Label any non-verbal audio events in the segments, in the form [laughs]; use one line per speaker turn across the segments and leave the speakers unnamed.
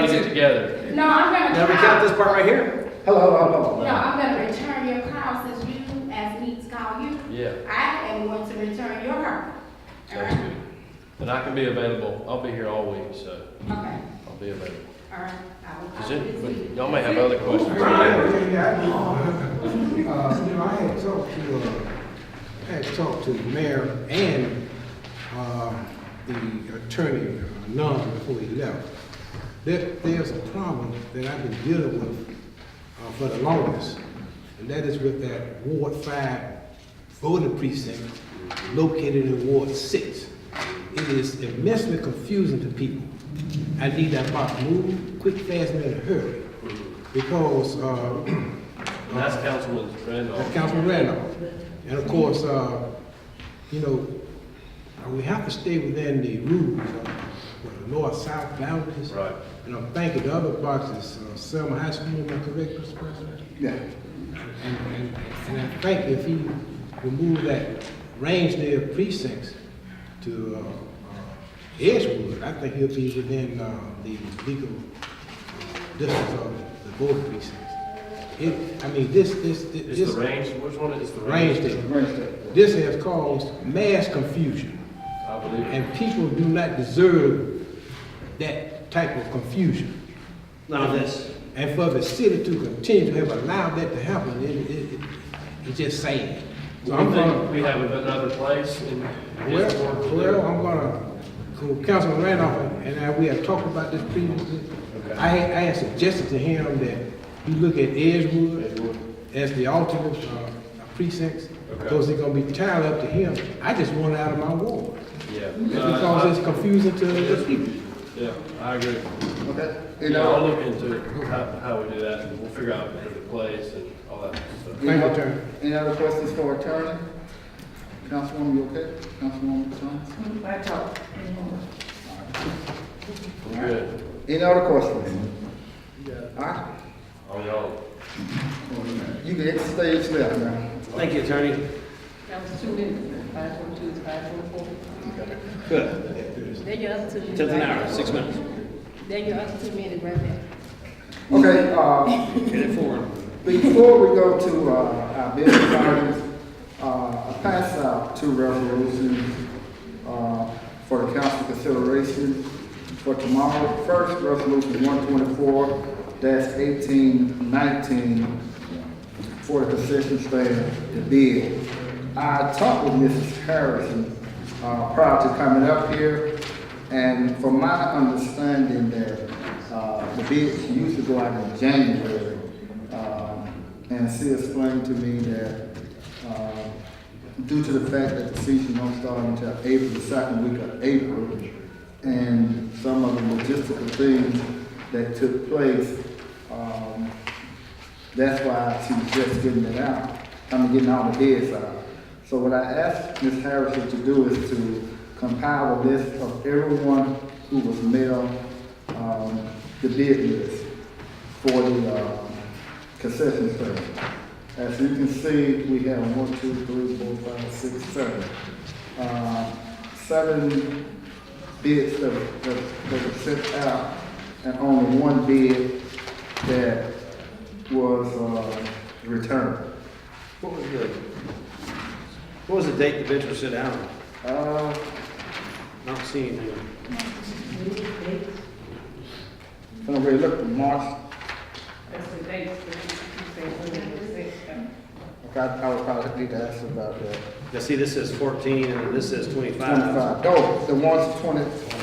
together.
No, I'm gonna.
Now we
call-
count this part right here?
Hello, hello, hello.
No, I'm gonna return your call since you asked me to call you.
Yeah,
I am going to return your call.
that's good. And I can be available, I'll be here all week, so
Okay,
I'll be available.
all right. I will
Is
call you
it,
this
but
week.
y'all may have other questions.
Brian, yeah, I know. Uh, you know, I had talked to, uh, I had talked to the mayor and, uh, the attorney, uh, Nunn, before he left. There, there's a problem that I've been dealing with, uh, for the longest, and that is with that Ward Five voting precinct located in Ward Six. It is immensely confusing to people. I need that box moved quick, fast, and in a hurry, because, uh, [clears throat]
And that's Councilman
that's
Randolph.
Councilman Randolph. And of course, uh, you know, uh, we have to stay within the rules of what, the north-south boundaries.
Right.
And I'm thinking the other boxes, uh, Selma High School, am I correct, Mr. President?
Yeah.
And, and, and I think if he removed that range there precincts to, uh, uh, Edgewood, I think he'll be within, uh, the legal uh, distance of the voting precincts. It, I mean, this, this, this.
Is the range, which one is the range?
range there. This has caused mass confusion,
I believe. it.
and people do not deserve that type of confusion.
Now this,
And for the city to continue to have allowed that to happen, it, it, it- it's just sad. So I'm
We think
gonna,
we have another place in.
well, well, I'm gonna, so Councilman Randolph and I, we have talked about this previously. I, had- I had suggested to him that he look at Edgewood as the alternate, uh, precincts,
Okay.
because it's gonna be tied up to him. I just want it out of my
Uh,
ward.
Yeah. Uh,
Because it's confusing to the people.
Yeah, I agree.
Okay. You
Yeah, I'll
know,
look into how, how we do that, and we'll figure out the place and all that stuff.
Thank you, Attorney.
Any other questions for attorney? Councilwoman, you okay? Councilwoman Thomas?
We're good.
Any other questions? All right,
On y'all.
you can exit stage left now.
thank you, attorney.
That was two minutes, five point two is five point four.
Good.
Then your other two minutes.
Till an
right
hour,
there.
six minutes.
Then your other two minutes right there.
Okay, uh,
Hit it forward.
Before we go to uh, our business items, uh, I pass out two resolutions uh, for the council consideration for tomorrow. First, Resolution 124-1819 for the concession stand, the bid. I talked with Mrs. Harrison uh, prior to coming up here, and from my understanding there, uh, the bids used to go out in January. Uh, And she explained to me that uh, due to the fact that the season don't start until April, the second week of April, and some of the logistical things that took place, um, that's why she was just getting it out, I mean, getting all the bids out. So what I asked Ms. Harrison to do is to compile a list of everyone who was mailed, um, the bid list for the, um, concession stand. As you can see, we have one, two, three, four, five, six, seven. Uh, seven bids that, that, that were sent out, and only one bid that was, uh, returned.
What was the, what was the date the bids were sent out?
Uh,
Not seeing anything.
I'm gonna look at March,
That's the date,
okay, I would probably need to ask about that.
Now, see, this says fourteen, and then this says twenty-five.
Twenty-five, no, the ones twenty,
It's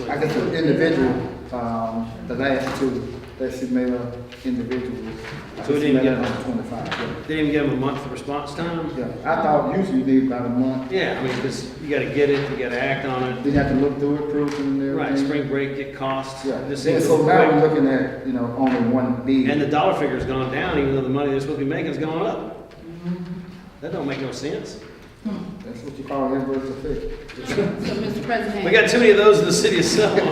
I
like-
guess the individual, um, the last two, that she made up individually. I
So
guess she
we didn't
made up
get-
on Twenty-five, yeah.
They didn't give them a month for response time?
Yeah, I thought usually you need about a month,
Yeah, I mean, because you gotta get it, you gotta act on it.
then you have to look through it, proof it and everything.
Right, spring break, get costs.
Yeah,
This
Then,
seems
so now
quick.
we're looking at, you know, only one bid.
And the dollar figure's gone down, even though the money they're supposed to be making's gone up. That don't make no sense.
That's what you call inverse effect.
So, Mr. President.
We got too many of those in the city of Selma.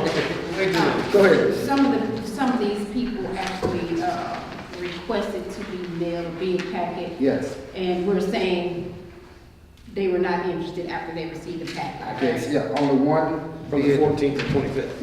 Way too many.
uh,
[laughs] Go ahead.
Some of the, some of these people actually, uh, requested to be mailed a bid packet.
Yes,
And we're saying they were not interested after they received the packet.
I guess, yeah, only one
From the
bid.
fourteenth to twenty-fifth.